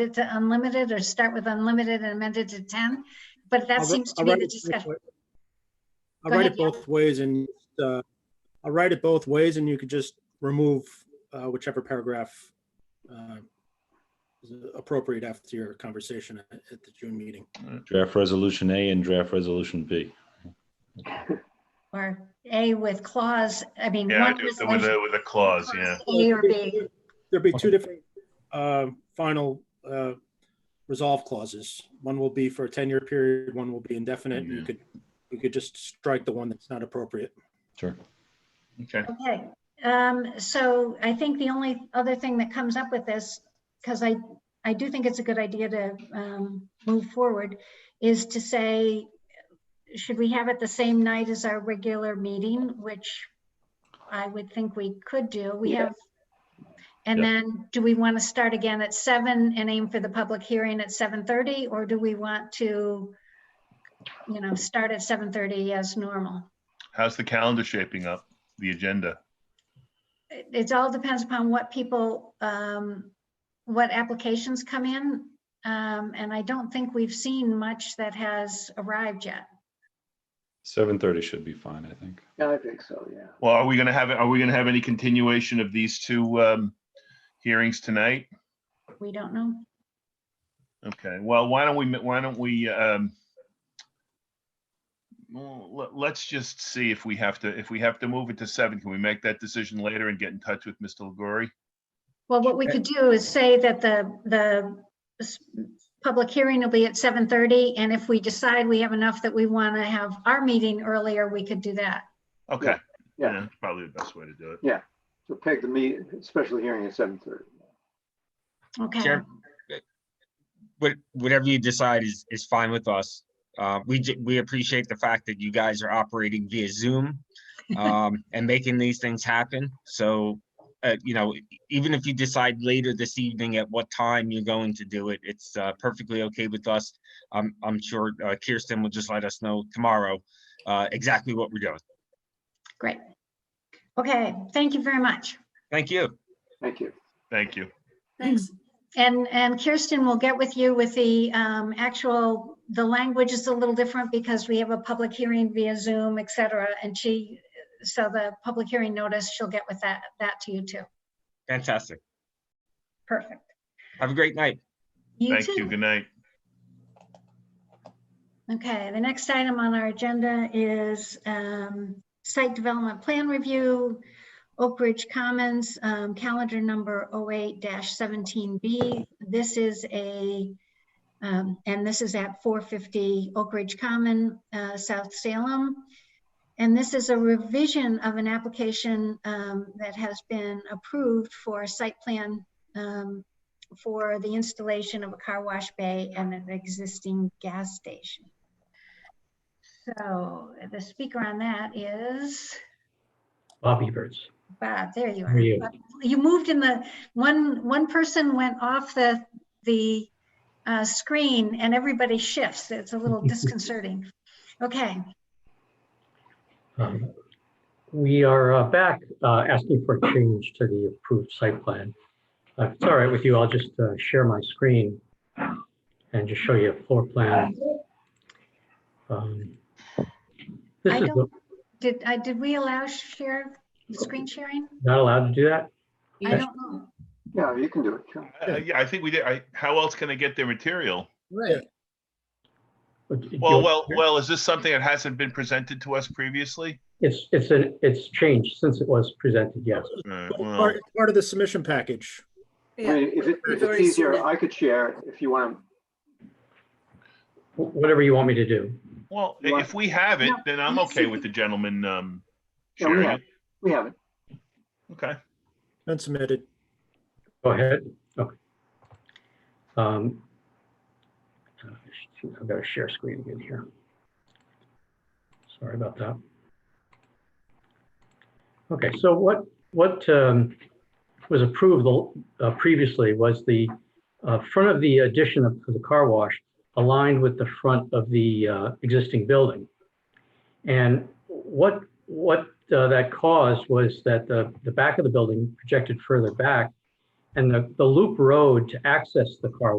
it to unlimited or start with unlimited and amend it to 10? But that I'll wri- seems to I'll be write the it both discussion. wa- I'll Go write ahead, it both ways and, uh, I'll write it both ways and you could just remove, uh, whichever paragraph, uh, is appropriate after your conversation at at the June meeting. Draft Resolution A and Draft Resolution B. Or A with clause, I mean. Yeah, I one do, with a, resolution, with a clause, yeah. clause A or B, There'll be two different, uh, final, uh, resolve clauses. One will be for a 10-year period, one will be indefinite. You Yeah. could, you could just strike the one that's not appropriate. Sure. Okay, okay. Um, so I think the only other thing that comes up with this, because I, I do think it's a good idea to, um, move forward, is to say, should we have it the same night as our regular meeting, which I would think we could do. We have. And Yeah. then do we want to start again at seven and aim for the public hearing at seven thirty? Or do we want to, you know, start at seven thirty as normal? how's the calendar shaping up, the agenda? It, it all depends upon what people, um, what applications come in. Um, and I don't think we've seen much that has arrived yet. Seven thirty should be fine, I think. Yeah, I think so, yeah. Well, are we gonna have, are we gonna have any continuation of these two, um, hearings tonight? We don't know. Okay, well, why don't we, why don't we, um, well, let- let's just see if we have to, if we have to move it to seven, can we make that decision later and get in touch with Mr. Legori? Well, what we could do is say that the, the s- public hearing will be at 7:30, and if we decide we have enough that we want to have our meeting earlier, we could do that. Okay. Yeah. that's Probably the best way to do it. So peg the meet, special hearing at seven thirty. Okay, Chair, what, whatever you decide is, is fine with us. Uh, we, j- we appreciate the fact that you guys are operating via Zoom, um, and making these things happen. So, uh, you know, even if you decide later this evening at what time you're going to do it, it's, uh, perfectly okay with us. I'm, I'm sure uh, Kirsten will just let us know tomorrow, uh, exactly what we're doing. great. Okay, thank you very much. Thank you. Thank you. Thank you. Thanks. Mm-hmm. And, and Kirsten will get with you with the um, actual, the language is a little different because we have a public hearing via Zoom, et cetera, and she, so the public hearing notice, she'll get with that, that to you too. Fantastic. Perfect. Have a great night. You Thank you, too. good night. Okay, the next item on our agenda is um, site development plan review, Oak Ridge Commons, um, calendar number 08-17B. This is a, um, and this is at 450 Oak Ridge Common, uh, South Salem. And this is a revision of an application um, that has been approved for a site plan um, for the installation of a car wash bay and an existing gas station. So the speaker on that is Bobby Birds. Bob, there you Where are. Uh, are you? You moved in the, one, one person went off the, the uh, screen and everybody shifts. It's a little disconcerting. Okay, Um, We are uh, back uh, asking for change to the approved site plan. Uh, If it's all right with you, I'll just uh, share my screen and just show you a floor plan. Um, This I is the- did, I, did we allow share, screen sharing? not allowed to do that? I Yes. don't know. Yeah, you can do it, sure. Uh, Yeah, I think we did, I, how else can I get their material? But do Well, you- well, well, is this something that hasn't been presented to us previously? It's, it's, an- it's changed since it was presented, yes. Uh, well, Part part of the submission package. I mean, if it, if it's easier, I could share if you want Wh- Whatever you want me to do. Well, You i- if we have it, No, then I'm let's okay see. with the gentleman, um, Yeah, we sharing have. it. We have it. Okay. Been submitted. Go ahead. Okay. Um, uh, I've got to share screen again here. Sorry about that. Okay, so what, what um, was approved uh, previously was the uh, front of the addition of the car wash aligned with the front of the uh, existing building. And what, what uh, that caused was that the, the back of the building projected further back and the, the loop road to access the car